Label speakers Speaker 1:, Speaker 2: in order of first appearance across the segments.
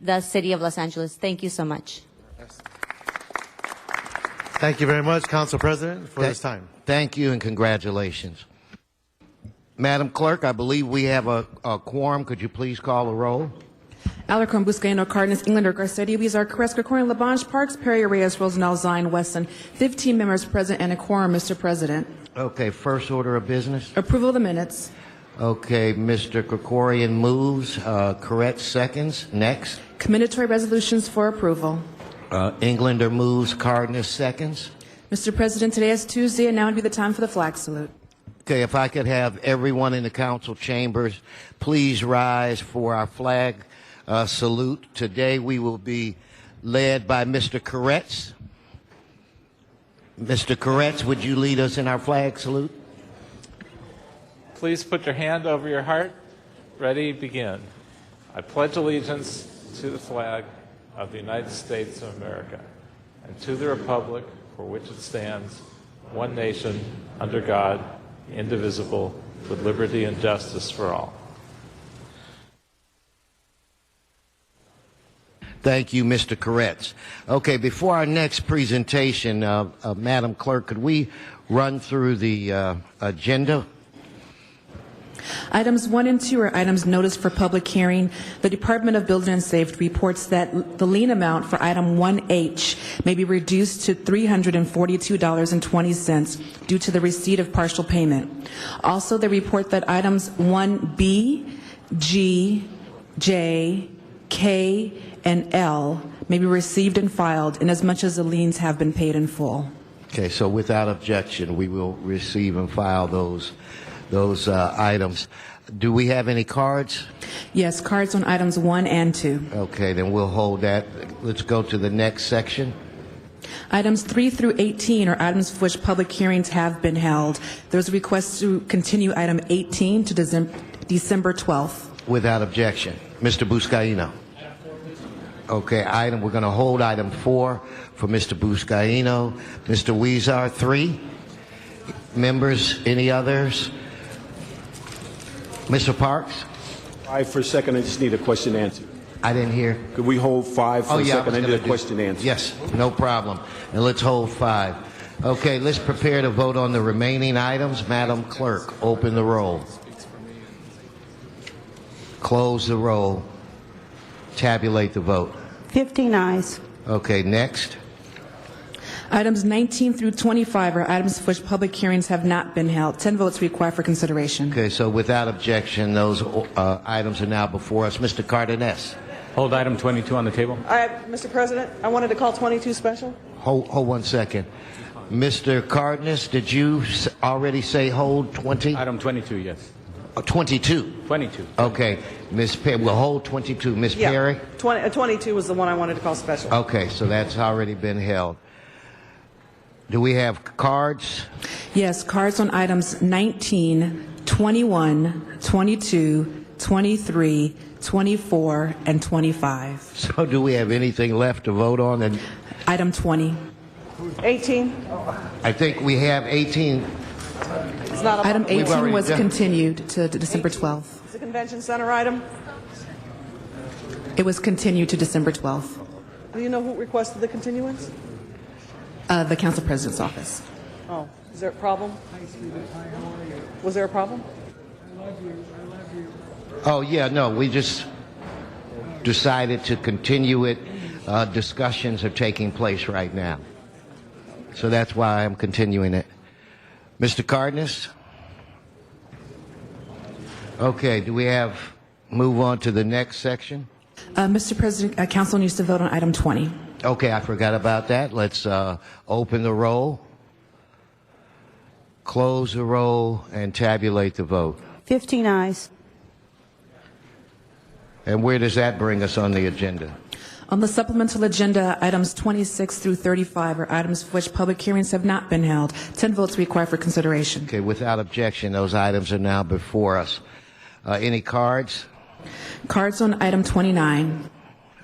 Speaker 1: the city of Los Angeles. Thank you so much.
Speaker 2: Thank you very much, Council President, for this time.
Speaker 3: Thank you and congratulations. Madam Clerk, I believe we have a, a quorum. Could you please call the roll?
Speaker 4: Alarcon, Buscaino, Cardenas, Englander, Garcetti, Weezer, Carrasco, Corning, Labange, Parks, Perry, Reyes, Rosendahl, Zine, Wesson. 15 members present and a quorum, Mr. President.
Speaker 3: Okay, first order of business.
Speaker 4: Approval of the minutes.
Speaker 3: Okay, Mr. Krikorian moves. Uh, Correct seconds. Next.
Speaker 4: Commendatory resolutions for approval.
Speaker 3: Uh, Englander moves. Cardenas seconds.
Speaker 4: Mr. President, today is Tuesday, and now would be the time for the flag salute.
Speaker 3: Okay, if I could have everyone in the council chambers please rise for our flag uh, salute. Today we will be led by Mr. Koretz. Mr. Koretz, would you lead us in our flag salute?
Speaker 5: Please put your hand over your heart. Ready, begin. I pledge allegiance to the flag of the United States of America and to the republic for which it stands, one nation, under God, indivisible, with liberty and justice for all.
Speaker 3: Thank you, Mr. Koretz. Okay, before our next presentation, uh, uh, Madam Clerk, could we run through the uh, agenda?
Speaker 4: Items 1 and 2 are items noticed for public hearing. The Department of Building and Safety reports that the lien amount for item 1H may be reduced to $342.20 due to the receipt of partial payment. Also, they report that items 1B, G, J, K, and L may be received and filed inasmuch as the liens have been paid in full.
Speaker 3: Okay, so without objection, we will receive and file those, those uh, items. Do we have any cards?
Speaker 4: Yes, cards on items 1 and 2.
Speaker 3: Okay, then we'll hold that. Let's go to the next section.
Speaker 4: Items 3 through 18 are items for which public hearings have been held. There's a request to continue item 18 to Decem- December 12th.
Speaker 3: Without objection. Mr. Buscaino. Okay, item, we're going to hold item four for Mr. Buscaino. Mr. Weezer, three. Members, any others? Mr. Parks?
Speaker 6: Five for a second, I just need a question answered.
Speaker 3: I didn't hear.
Speaker 6: Could we hold five
Speaker 3: Oh,
Speaker 6: for a
Speaker 3: yeah. I was
Speaker 6: second? I need
Speaker 3: gonna
Speaker 6: a
Speaker 3: do-
Speaker 6: question answered.
Speaker 3: Yes, no problem. And let's hold five. Okay, let's prepare to vote on the remaining items. Madam Clerk, open the roll. Close the roll. Tabulate the vote.
Speaker 7: 15 eyes.
Speaker 3: Okay, next.
Speaker 4: Items 19 through 25 are items for which public hearings have not been held. 10 votes required for consideration.
Speaker 3: Okay, so without objection, those uh, items are now before us. Mr. Cardenas,
Speaker 8: Hold item 22 on the table.
Speaker 9: I, Mr. President, I wanted to call 22 special.
Speaker 3: hold, hold one second. Mr. Cardenas, did you s- already say hold 20?
Speaker 8: Item 22, yes.
Speaker 3: Uh, 22.
Speaker 8: 22.
Speaker 3: Okay, Ms. Perry, we'll hold 22. Ms.
Speaker 9: Yeah,
Speaker 3: Perry?
Speaker 9: 20, uh, 22 was the one I wanted to call special.
Speaker 3: Okay, so that's already been held. Do we have cards?
Speaker 4: Yes, cards on items 19, 21, 22, 23, 24, and 25.
Speaker 3: So do we have anything left to vote on? And
Speaker 4: Item 20.
Speaker 9: 18,
Speaker 3: I think we have 18.
Speaker 9: it's not
Speaker 4: Item
Speaker 9: a,
Speaker 3: We've already
Speaker 4: 18 was
Speaker 3: done-
Speaker 4: continued to to December 12th.
Speaker 9: it's a convention center item.
Speaker 4: It was continued to December 12th,
Speaker 9: Do you know who requested the continuance?
Speaker 4: uh, the council president's office.
Speaker 9: Oh, is there a problem? Was there a problem?
Speaker 3: Oh, yeah, no, we just decided to continue it. Uh, discussions are taking place right now. So that's why I'm continuing it. Mr. Cardenas? Okay, do we have, move on to the next section?
Speaker 4: Uh, Mr. President, uh, council needs to vote on item 20.
Speaker 3: Okay, I forgot about that. Let's uh, open the roll, close the roll, and tabulate the vote.
Speaker 7: 15 eyes.
Speaker 3: And where does that bring us on the agenda?
Speaker 4: On the supplemental agenda, items 26 through 35 are items for which public hearings have not been held. 10 votes required for consideration.
Speaker 3: Okay, without objection, those items are now before us. Uh, any cards?
Speaker 4: Cards on item 29.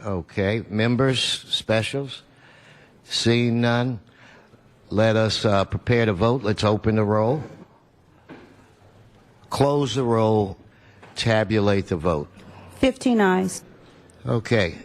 Speaker 3: Okay, members, specials? Seeing none, let us uh, prepare to vote. Let's open the roll, close the roll, tabulate the vote.
Speaker 7: 15 eyes.
Speaker 3: Okay,